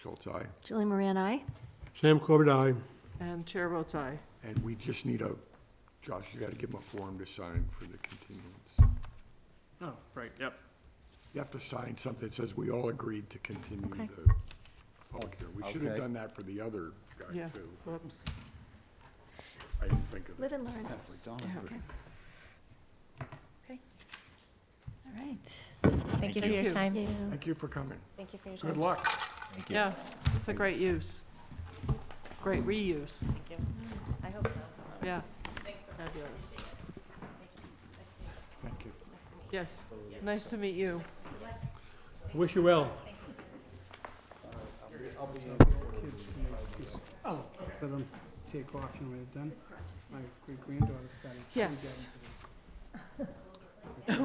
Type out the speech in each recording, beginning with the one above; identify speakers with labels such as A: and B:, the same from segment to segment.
A: Schultz, aye.
B: Julie Moran, I.
C: Sam Corbett, aye.
D: And chair votes aye.
A: And we just need a, Josh, you gotta give him a form to sign for the continuance.
E: Oh, right, yep.
A: You have to sign something that says we all agreed to continue
B: Okay.
A: the public hearing. We should have
F: Okay.
A: done that for the other guy,
D: Yeah.
A: too.
D: Oops.
A: I didn't think of it.
B: Live and learn.
F: Halfway done.
B: Okay. Okay. All right.
G: Thank you for
D: Thank you.
G: your
B: Thank
G: time.
B: you.
A: Thank you for coming.
B: Thank you for your
A: Good
B: time.
A: luck.
F: Thank you.
D: Yeah, it's a great use. Great reuse,
G: I hope so.
D: yeah. Fabulous.
A: Thank you.
D: Yes, nice to meet you.
C: Wish you well.
H: Oh, let them take off and we're done. My great granddaughter started. she
D: Yes.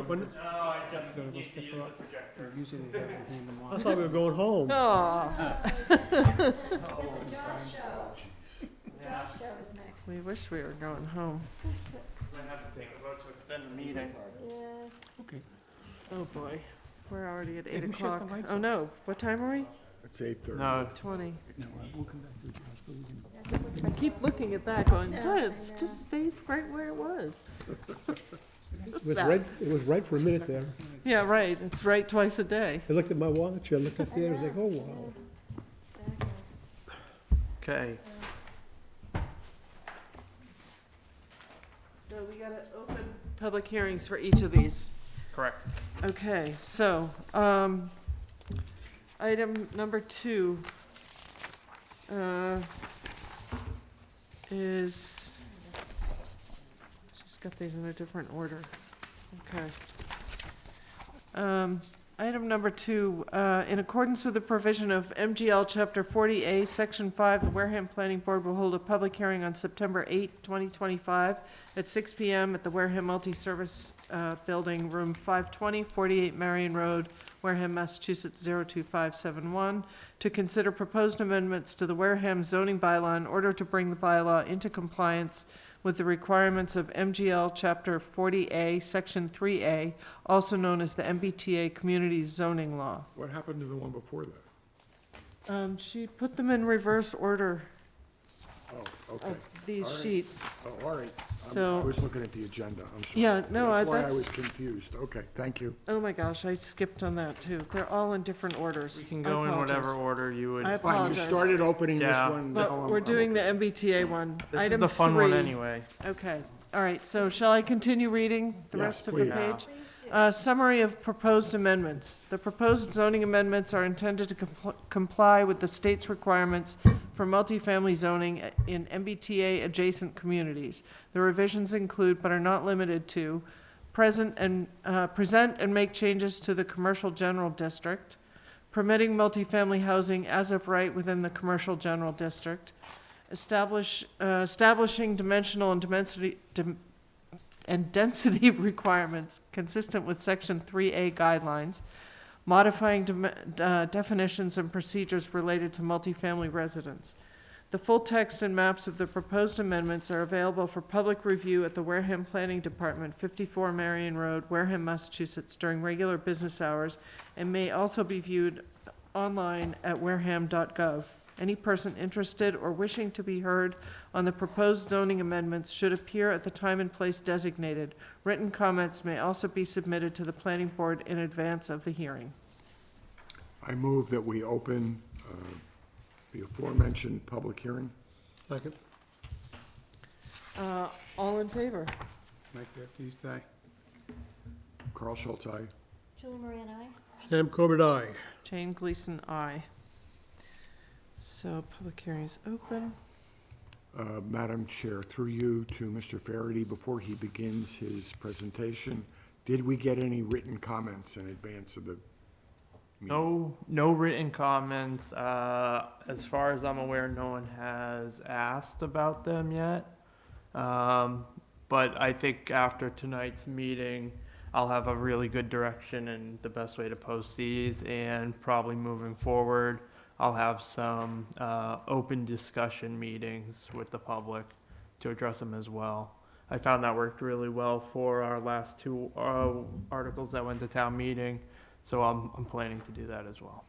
C: When-
H: got- got those picked up. Usually they have to hand them
C: I
H: off.
C: thought we were going home.
D: Oh,
B: Show is next.
D: we wish we were going home.
B: Yes.
D: Oh, boy. We're already at eight
H: Hey, who shut the
D: o'clock.
H: lights
D: Oh,
H: off?
D: no. What time are we?
A: It's eight thirty.
E: No,
D: Twenty.
H: No, we'll come back to it, Josh, but we can.
D: I keep looking at that going,
B: Yeah,
D: "Good,
B: I
D: it's
B: know.
D: just stays right where it was.
C: It
D: Just
C: was
D: that.
C: right, it was right for a minute there.
D: Yeah, right. It's right twice a day.
C: I looked at my watch, I looked up there, I was like, oh, wow.
E: okay.
D: So we gotta open public hearings for each of these.
E: Correct.
D: Okay, so, um, item number two, uh, is, she's got these in a different order. Okay. Um, item number two, uh, in accordance with the provision of MGL Chapter forty A, Section five, the Wareham Planning Board will hold a public hearing on September eighth, twenty twenty-five, at six PM at the Wareham Multi-Service uh, Building, Room 520, 48 Marion Road, Wareham, Massachusetts 02571, to consider proposed amendments to the Wareham zoning bylaw in order to bring the bylaw into compliance with the requirements of MGL Chapter 40A, Section 3A, also known as the MBTA Community Zoning Law.
A: What happened to the one before that?
D: Um, She put them in reverse order
A: Oh, okay.
D: of these
A: All right.
D: sheets.
A: Oh, all right. I'm-
D: So-
A: I was looking at the agenda, I'm sorry.
D: Yeah, no, I-
A: That's why I
D: that's-
A: was confused. Okay, thank you.
D: Oh my gosh, I skipped on that too. They're all in different orders.
E: We can
D: I
E: go in
D: apologize.
E: whatever order you would.
D: I
A: Fine,
D: apologize.
A: You started opening this
E: Yeah.
A: one. now
D: But
A: I'm-
D: we're
A: I'm
D: doing the
A: okay.
D: MBTA one.
E: This is
D: Item
E: the fun one
D: three.
E: anyway.
D: Okay, all right, so shall I continue reading the
A: Yes,
D: rest of the
A: please.
D: page? Uh, Summary of proposed amendments. The proposed zoning amendments are intended to compl- comply with the state's requirements for multifamily zoning in MBTA-adjacent communities. The revisions include, but are not limited to, present and, uh, present and make changes to the commercial general district, permitting multifamily housing as of right within the commercial general district, establish, uh, establishing dimensional and dimensity, dim- and density requirements consistent with Section 3A guidelines, modifying dem- uh, definitions and procedures related to multifamily residence. The full text and maps of the proposed amendments are available for public review at the Wareham Planning Department, 54 Marion Road, Wareham, Massachusetts, during regular business hours, and may also be viewed online at wareham.gov. Any person interested or wishing to be heard on the proposed zoning amendments should appear at the time and place designated. Written comments may also be submitted to the planning board in advance of the hearing.
A: I move that we open uh, the aforementioned public hearing.
C: Second.
D: Uh, all in favor?
H: Mike Baptiste, aye.
A: Carl Schultz, aye.
B: Julie Moran, I.
C: Sam Corbett, aye.
D: Jane Gleason, aye. So public hearing is open.
A: Uh, Madam Chair, through you to Mr. Farady, before he begins his presentation, did we get any written comments in advance of the? meeting?
E: No, no written comments. Uh, as far as I'm aware, no one has asked about them yet. Um, but I think after tonight's meeting, I'll have a really good direction and the best way to post these. And probably moving forward, I'll have some uh, open discussion meetings with the public to address them as well. I found that worked really well for our last two uh, articles that went to town meeting. So I'm, I'm planning to do that as well.